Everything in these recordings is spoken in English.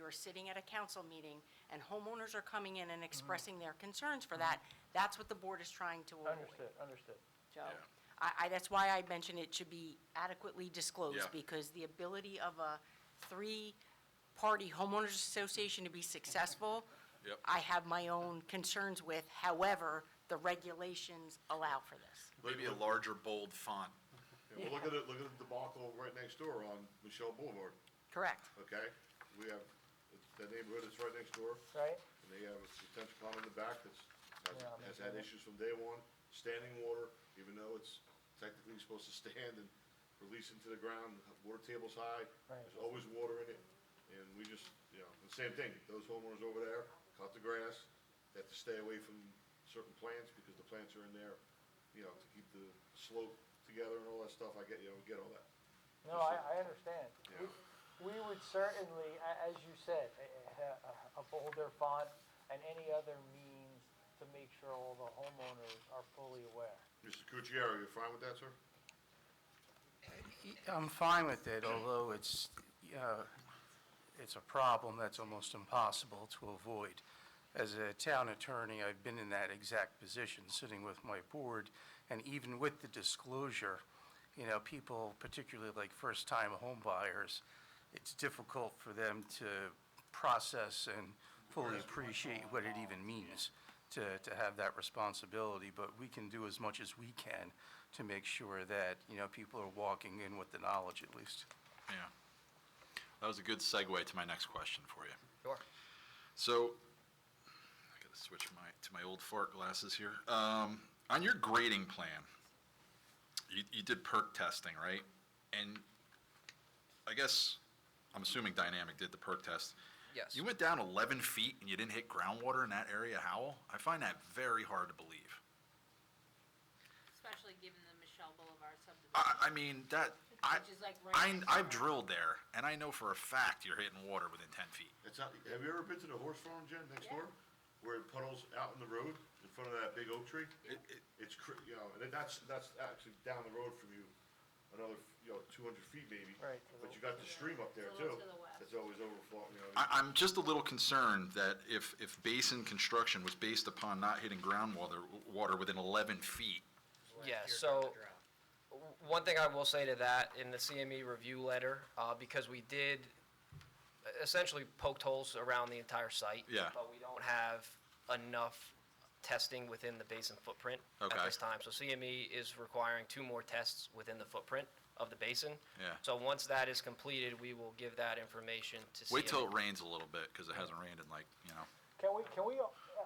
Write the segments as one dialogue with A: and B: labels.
A: we're sitting at a council meeting and homeowners are coming in and expressing their concerns for that, that's what the board is trying to avoid.
B: Understood, understood.
A: Joe. I, I, that's why I mentioned it should be adequately
C: Yeah.
A: disclosed, because the ability of a three-party homeowners association to be successful,
C: Yep.
A: I have my own concerns with, however, the regulations allow for this.
C: Maybe a larger bold font.
D: Yeah, well, look at it, look at the debacle right next door on Michelle Boulevard,
A: Correct.
D: okay? We have, it's- that neighborhood that's right next door,
B: Right?
D: and they have a detention pond in the back that's,
B: Yeah,
D: has,
B: I'm
D: has
B: sure.
D: had issues from day one, standing water, even though it's technically supposed to stand and release into the ground, water table's high,
B: Right.
D: there's always water in it, and we just, you know, the same thing, those homeowners over there cut the grass, they have to stay away from certain plants, because the plants are in there, you know, to keep the slope together and all that stuff, I get, you know, I get all that.
B: No, I, I understand.
D: Yeah.
B: We- We would certainly, a- as you said, a- a a bolder font and any other means to make sure all the homeowners are fully aware.
D: Mr. Cucchiaro, you fine with that, sir?
E: I'm fine with it, although it's, uh, it's a problem that's almost impossible to avoid. As a town attorney, I've been in that exact position, sitting with my board, and even with the disclosure, you know, people, particularly like first-time home buyers, it's difficult for them to process and fully appreciate what it even means to, to have that responsibility, but we can do as much as we can to make sure that, you know, people are walking in with the knowledge at least.
C: Yeah. That was a good segue to my next question for you.
B: Sure.
C: So, I gotta switch my, to my old fart glasses here. Um, on your grading plan, you, you did perk testing, right? And I guess, I'm assuming Dynamic did the perk test.
F: Yes.
C: You went down eleven feet and you didn't hit groundwater in that area, Howell? I find that very hard to believe.
G: Especially given the Michelle Boulevard
C: I, I
G: subdivision,
C: mean, that, I,
G: which is like right.
C: I,
G: next
C: I've
G: door.
C: drilled there, and I know for a fact you're hitting water within ten feet.
D: It's not, have you ever been to the horse farm, Jen, next
G: Yeah.
D: door? Where it puddles out in the road in front of that big oak tree?
C: It- it-
D: It's, cr- you know, and then that's, that's actually down the road from you, another, you know, two hundred feet maybe.
B: Right.
D: But you got the stream up there
G: It's a
D: too.
G: little to the west.
D: That's always overflowing, you know.
C: I, I'm just a little concerned that if, if basin construction was based upon not hitting groundwater, water within 11 feet,
F: Yeah, so, w- one thing I will say to that, in the CME review letter, uh, because we did e-, essentially poked holes around the entire site.
C: Yeah.
F: But we don't have enough testing within the basin footprint
C: Okay.
F: at this time. So CME is requiring two more tests within the footprint of the basin.
C: Yeah.
F: So once that is completed, we will give that information to CME.
C: wait till it rains a little bit, because it hasn't rained in like, you know.
B: Can we, can we, uh,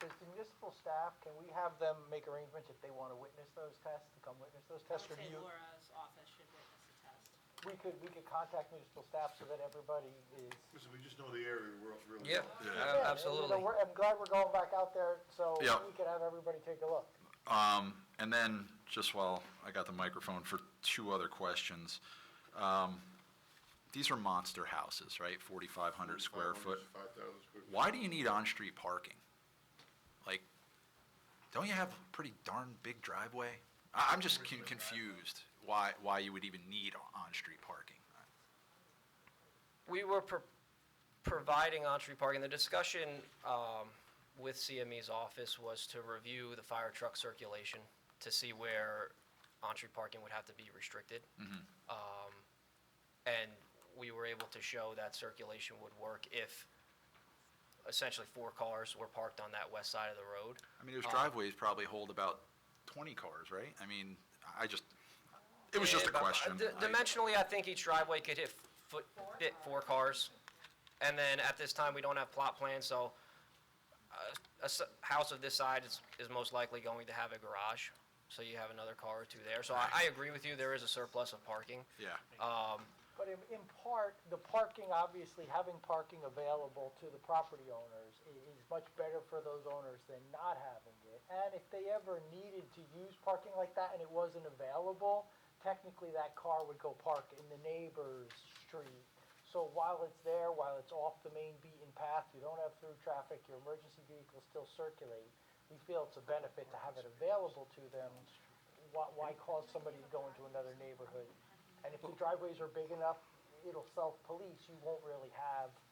B: does the municipal staff, can we have them make arrangements if they want to witness those tests, to come witness those
G: I
B: tests?
G: would
B: or do
G: say
B: you-
G: Laura's office should witness the test.
B: We could, we could contact municipal staff so that everybody is.
D: Listen, we just know the area we're really.
F: E. Yeah,
C: Yeah.
F: a-
B: Yeah,
F: absolutely.
B: you know, we're- I'm glad we're going back out there so
C: Yeah.
B: we can have everybody take a look.
C: Um, And then, just while I got the microphone for two other questions, um, these are monster houses, right? 4,500 square foot.
D: Five thousand square. feet.
C: Why do you need on-street parking? Like, don't you have a pretty darn big driveway? I, I'm just con- confused why, why you would even need on-street parking.
F: We were pro- providing on-street parking. The discussion um, with CME's office was to review the fire truck circulation to see where on-street parking would have to be restricted. Um, And we were able to show that circulation would work if essentially four cars were parked on that west side of the road.
C: I mean, those
F: Uh,
C: driveways probably hold about 20 cars, right? I mean, I just, it was just a
F: Yeah, but, uh,
C: question.
F: di-
C: I-
F: Dimensionally, I think each driveway could hit, foot- fit four cars. And then at this time, we don't have plot plans, so uh, a s- house of this side is, is most likely going to have a garage. So you have another car or two there. So I, I agree with you, there is a surplus of parking.
C: Yeah,
B: But in, in part, the parking, obviously, having parking available to the property owners i- is much better for those owners than not having it. And if they ever needed to use parking like that and it wasn't available, technically that car would go park in the neighbor's street. So while it's there, while it's off the main beaten path, you don't have through traffic, your emergency vehicles still circulate. We feel it's a benefit to have it available to them. Why, why cause somebody to go into another neighborhood? And if the driveways are big enough, it'll self-police, you won't really have